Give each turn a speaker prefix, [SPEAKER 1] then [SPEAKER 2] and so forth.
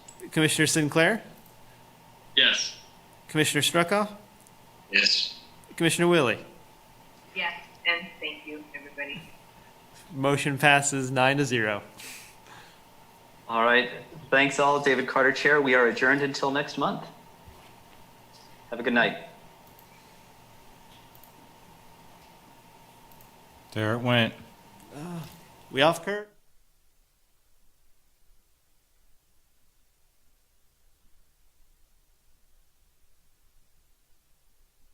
[SPEAKER 1] Commissioner Sinclair,
[SPEAKER 2] Yes.
[SPEAKER 1] Commissioner Struckoff,
[SPEAKER 2] Yes.
[SPEAKER 1] Commissioner Willie.
[SPEAKER 3] Yes, and thank you, everybody.
[SPEAKER 1] Motion passes nine to zero.
[SPEAKER 4] All right. Thanks all. David Carter, Chair. We are adjourned until next month. Have a good night.
[SPEAKER 5] There it went.
[SPEAKER 1] We off, Kurt?